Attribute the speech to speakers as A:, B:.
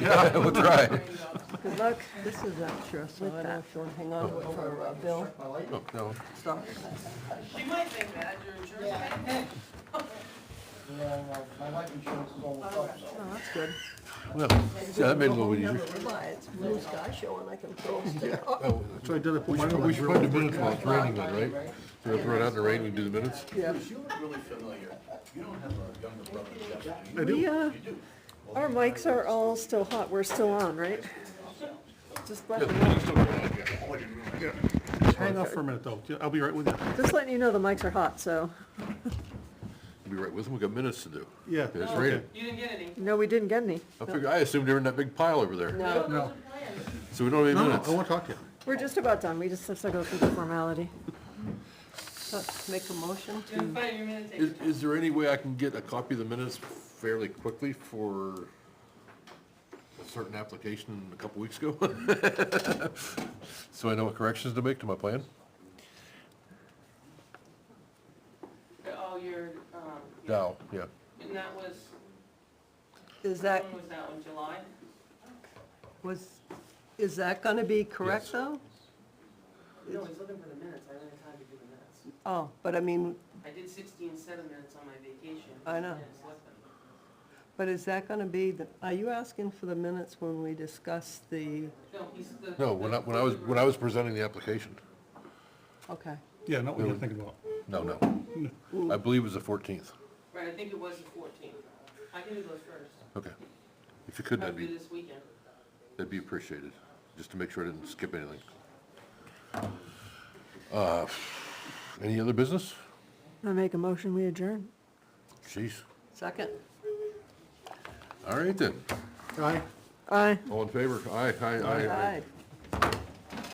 A: Yeah, that's right.
B: Good luck. This is extra, so I don't know if you want to hang on to it for a bill.
A: No, no.
B: Stop.
C: She might think that, your insurance
D: Yeah.
C: might think.
D: Yeah, well, my life insurance is all the time, so.
B: Oh, that's good.
A: Well, see, that made it a little bit easier.
B: Why, it's blue sky show and I can throw stuff. Oh,
A: Oh,
E: So I did it.
A: We should, we should put the minutes while it's raining then, right? So we throw it out in the rain, we do the minutes?
B: yeah.
F: You look really familiar. You don't have a younger brother, Justin, do you?
E: I
B: We, uh,
E: do.
F: You do.
B: our mics are all still hot. We're still on, right? Just let me know.
A: Yeah.
E: Hang off for a minute, though. I'll be right with you.
B: Just letting you know the mics are hot, so.
A: Be right with them, we got minutes to do.
E: Yeah. Uh,
A: It's
E: okay.
A: raining.
C: You didn't get any.
B: No, we didn't get any.
A: I figured, I assumed they were in that big pile over there,
B: No,
C: Those
E: No,
C: are planned.
A: so we don't have
E: no,
A: any
E: no, I
A: minutes.
E: won't talk to you.
B: we're just about done. We just have to go through the formality. Make a motion
C: You didn't find your minute taker.
A: Is, is there any way I can get a copy of the minutes fairly quickly for a certain application a couple weeks ago? So I know what corrections to make to my plan?
C: Oh, your, um. yeah.
A: Dow, yeah.
C: And that was,
B: Is that,
C: when was that one, July?
B: was, is that going to be
A: Yes.
B: correct, though?
C: No, he's looking for the minutes, I don't have time to do the minutes.
B: Oh, but I mean,
C: I did sixteen seven minutes on my vacation.
B: I know.
C: and it's less than-
B: but is that going to be, the? are you asking for the minutes when we discuss the,
C: No, he's the.
A: No, when I, when I was, when I was presenting the application.
B: okay.
E: Yeah, not what you're thinking about.
A: No, no. I believe it was the fourteenth.
C: Right, I think it was the fourteenth. I can do those first.
A: Okay. If you could, that'd
C: Probably
A: be,
C: this weekend.
A: that'd be appreciated, just to make sure I didn't skip anything. Uh, Any other business?
B: I make a motion, we adjourn.
A: Jeez.
B: Second?
A: All right then.
E: Aye.
B: Aye.
A: All in favor? Aye, aye, aye.
B: Aye.